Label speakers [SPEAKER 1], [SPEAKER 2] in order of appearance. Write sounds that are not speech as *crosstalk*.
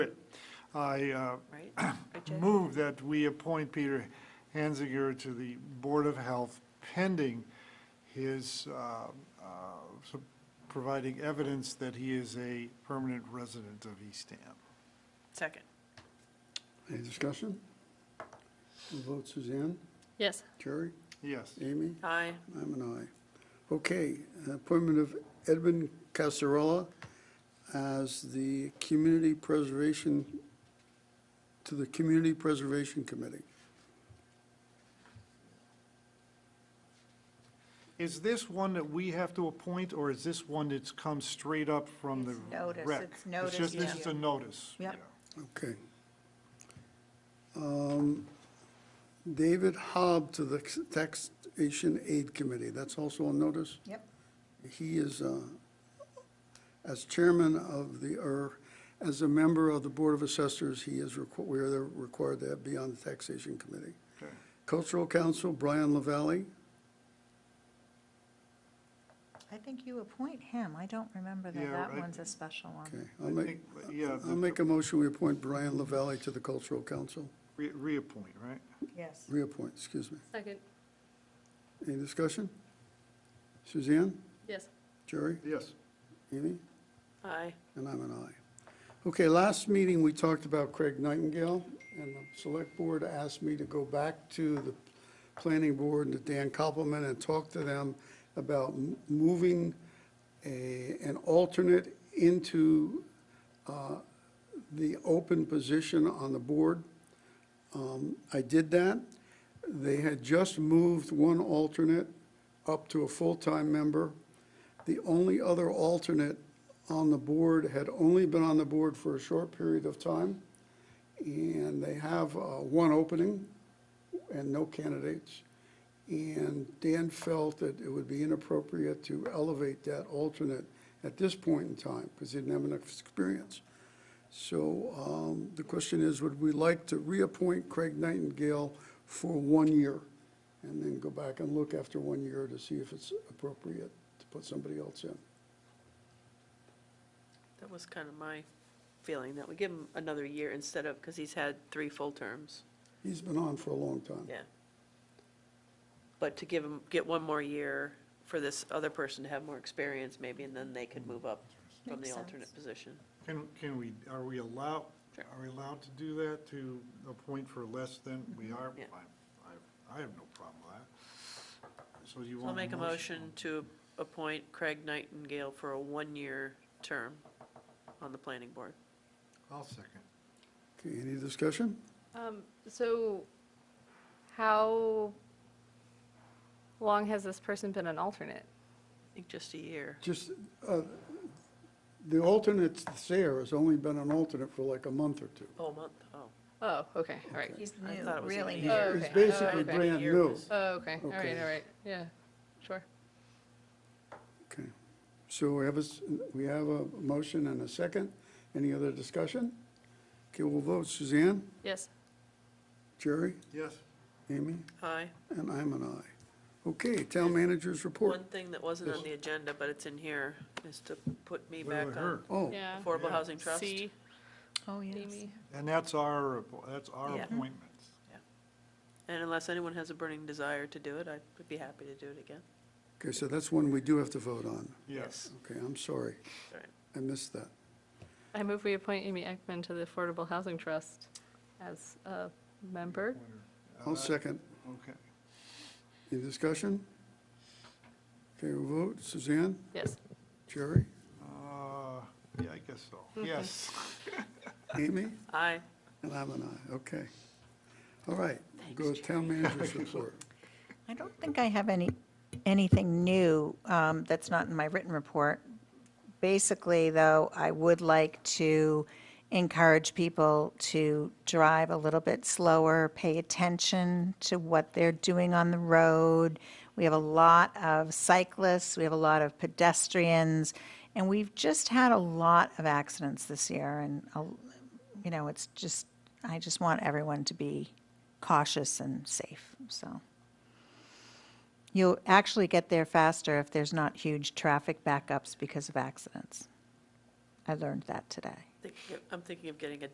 [SPEAKER 1] I uh,
[SPEAKER 2] *clears throat* right? RJ?
[SPEAKER 1] move that we appoint Peter Hansinger to the Board of Health pending his uh, uh, so- providing evidence that he is a permanent resident of Eastham.
[SPEAKER 2] Second.
[SPEAKER 3] Any discussion? We'll vote Suzanne,
[SPEAKER 4] Yes.
[SPEAKER 3] Jerry,
[SPEAKER 1] Yes.
[SPEAKER 3] Amy,
[SPEAKER 2] Aye.
[SPEAKER 3] I'm an aye. Okay, appointment of Edmund Casarola as the Community Preservation, to the Community Preservation Committee.
[SPEAKER 1] Is this one that we have to appoint, or is this one that's come straight up from the
[SPEAKER 5] It's notice,
[SPEAKER 1] rec?
[SPEAKER 5] it's notice
[SPEAKER 1] just,
[SPEAKER 2] to
[SPEAKER 1] this is
[SPEAKER 5] you.
[SPEAKER 1] a notice.
[SPEAKER 5] Yep.
[SPEAKER 1] yeah.
[SPEAKER 3] Okay. Um, David Hobb to the Taxation Aid Committee, that's also on notice?
[SPEAKER 5] Yep,
[SPEAKER 3] He is, uh, as chairman of the, or as a member of the Board of Assessors, he is, requ- we are required to be on the Taxation Committee.
[SPEAKER 1] Okay.
[SPEAKER 3] Cultural Council, Brian Lavalley.
[SPEAKER 5] I think you appoint him, I don't remember that,
[SPEAKER 1] Yeah,
[SPEAKER 5] that
[SPEAKER 1] I-
[SPEAKER 5] one's a special one.
[SPEAKER 3] Okay, I'll
[SPEAKER 1] I
[SPEAKER 3] make,
[SPEAKER 1] think, Yeah,
[SPEAKER 3] I'll
[SPEAKER 1] the-
[SPEAKER 3] make a motion, we appoint Brian Lavalley to the Cultural Council.
[SPEAKER 1] re- reappoint, right?
[SPEAKER 5] Yes.
[SPEAKER 3] Reappoint, excuse me.
[SPEAKER 4] Second.
[SPEAKER 3] Any discussion? Suzanne?
[SPEAKER 4] Yes.
[SPEAKER 3] Jerry?
[SPEAKER 1] Yes.
[SPEAKER 3] Amy?
[SPEAKER 2] Aye.
[SPEAKER 3] And I'm an aye. Okay, last meeting, we talked about Craig Nightingale, and the select board asked me to go back to the planning board and to Dan Koppelman and talk to them about m- moving a, an alternate into uh, the open position on the board. Um, I did that. They had just moved one alternate up to a full-time member. The only other alternate on the board had only been on the board for a short period of time, and they have uh, one opening and no candidates. And Dan felt that it would be inappropriate to elevate that alternate at this point in time, because he didn't have enough experience. So um, the question is, would we like to reappoint Craig Nightingale for one year? And then go back and look after one year to see if it's appropriate to put somebody else in?
[SPEAKER 2] That was kind of my feeling, that we give him another year instead of, because he's had three full terms.
[SPEAKER 3] He's been on for a long time.
[SPEAKER 2] Yeah. But to give him, get one more year for this other person to have more experience maybe, and then they could move up from
[SPEAKER 5] Makes
[SPEAKER 2] the
[SPEAKER 5] sense.
[SPEAKER 2] alternate position.
[SPEAKER 1] Can, can we, are we allowed,
[SPEAKER 2] Sure.
[SPEAKER 1] are we allowed to do that to a point for less than we are?
[SPEAKER 2] Mm-hmm. Yeah.
[SPEAKER 1] I, I, I have no problem with that. So you
[SPEAKER 2] So I'll
[SPEAKER 1] want
[SPEAKER 2] make a motion to appoint Craig Nightingale for a one-year term on the planning board.
[SPEAKER 1] I'll second.
[SPEAKER 3] Okay, any discussion?
[SPEAKER 4] Um, so how long has this person been an alternate?
[SPEAKER 2] I think just a year.
[SPEAKER 3] Just, uh, the alternate there has only been an alternate for like a month or two.
[SPEAKER 2] Oh, a month, oh.
[SPEAKER 4] Oh, okay, all right.
[SPEAKER 5] He's
[SPEAKER 2] I
[SPEAKER 5] new,
[SPEAKER 2] thought it was
[SPEAKER 5] really
[SPEAKER 2] only
[SPEAKER 5] new.
[SPEAKER 2] a
[SPEAKER 4] Oh,
[SPEAKER 2] year.
[SPEAKER 3] It's
[SPEAKER 4] okay.
[SPEAKER 3] basically
[SPEAKER 4] Okay.
[SPEAKER 3] brand
[SPEAKER 2] Year
[SPEAKER 3] new.
[SPEAKER 2] was-
[SPEAKER 4] Oh, okay, all right,
[SPEAKER 3] Okay.
[SPEAKER 4] all right, yeah, sure.
[SPEAKER 3] Okay, so we have a, s- we have a motion and a second. Any other discussion? Okay, we'll vote. Suzanne,
[SPEAKER 4] Yes,
[SPEAKER 3] Jerry,
[SPEAKER 1] Yes.
[SPEAKER 3] Amy,
[SPEAKER 2] Aye.
[SPEAKER 3] and I'm an aye. Okay, town managers
[SPEAKER 2] One
[SPEAKER 3] report.
[SPEAKER 2] thing that wasn't on the agenda, but it's in here, is to put me
[SPEAKER 1] What
[SPEAKER 2] back
[SPEAKER 1] about
[SPEAKER 2] on
[SPEAKER 1] her?
[SPEAKER 3] Oh,
[SPEAKER 4] yeah.
[SPEAKER 2] Affordable Housing Trust.
[SPEAKER 4] C,
[SPEAKER 5] Oh, yes.
[SPEAKER 4] Amy.
[SPEAKER 1] And that's our, appo- that's our
[SPEAKER 2] Yeah. Mhm.
[SPEAKER 1] appointments.
[SPEAKER 2] And unless anyone has a burning desire to do it, I would be happy to do it again.
[SPEAKER 3] okay, so that's one we do have to vote on.
[SPEAKER 2] Mm-hmm.
[SPEAKER 1] Yes.
[SPEAKER 3] Okay, I'm sorry.
[SPEAKER 2] All right.
[SPEAKER 3] I missed that.
[SPEAKER 4] I move we appoint Amy Ekman to the Affordable Housing Trust as a member.
[SPEAKER 3] I'll second.
[SPEAKER 1] uh, Okay.
[SPEAKER 3] Any discussion? Okay, we'll vote. Suzanne,
[SPEAKER 4] Yes,
[SPEAKER 3] Jerry,
[SPEAKER 1] Uh, yeah, I guess so.
[SPEAKER 2] Mm-hmm.
[SPEAKER 1] Yes.
[SPEAKER 3] Amy,
[SPEAKER 2] Aye.
[SPEAKER 3] and I'm an aye. Okay. All right, go to town managers report.
[SPEAKER 5] I don't think I have any, anything new um, that's not in my written report. Basically, though, I would like to encourage people to drive a little bit slower, pay attention to what they're doing on the road. We have a lot of cyclists, we have a lot of pedestrians, and we've just had a lot of accidents this year, and a- you know, it's just, I just want everyone to be cautious and safe, so. You'll actually get there faster if there's not huge traffic backups because of accidents. I learned that today.
[SPEAKER 2] Think- I'm thinking of getting a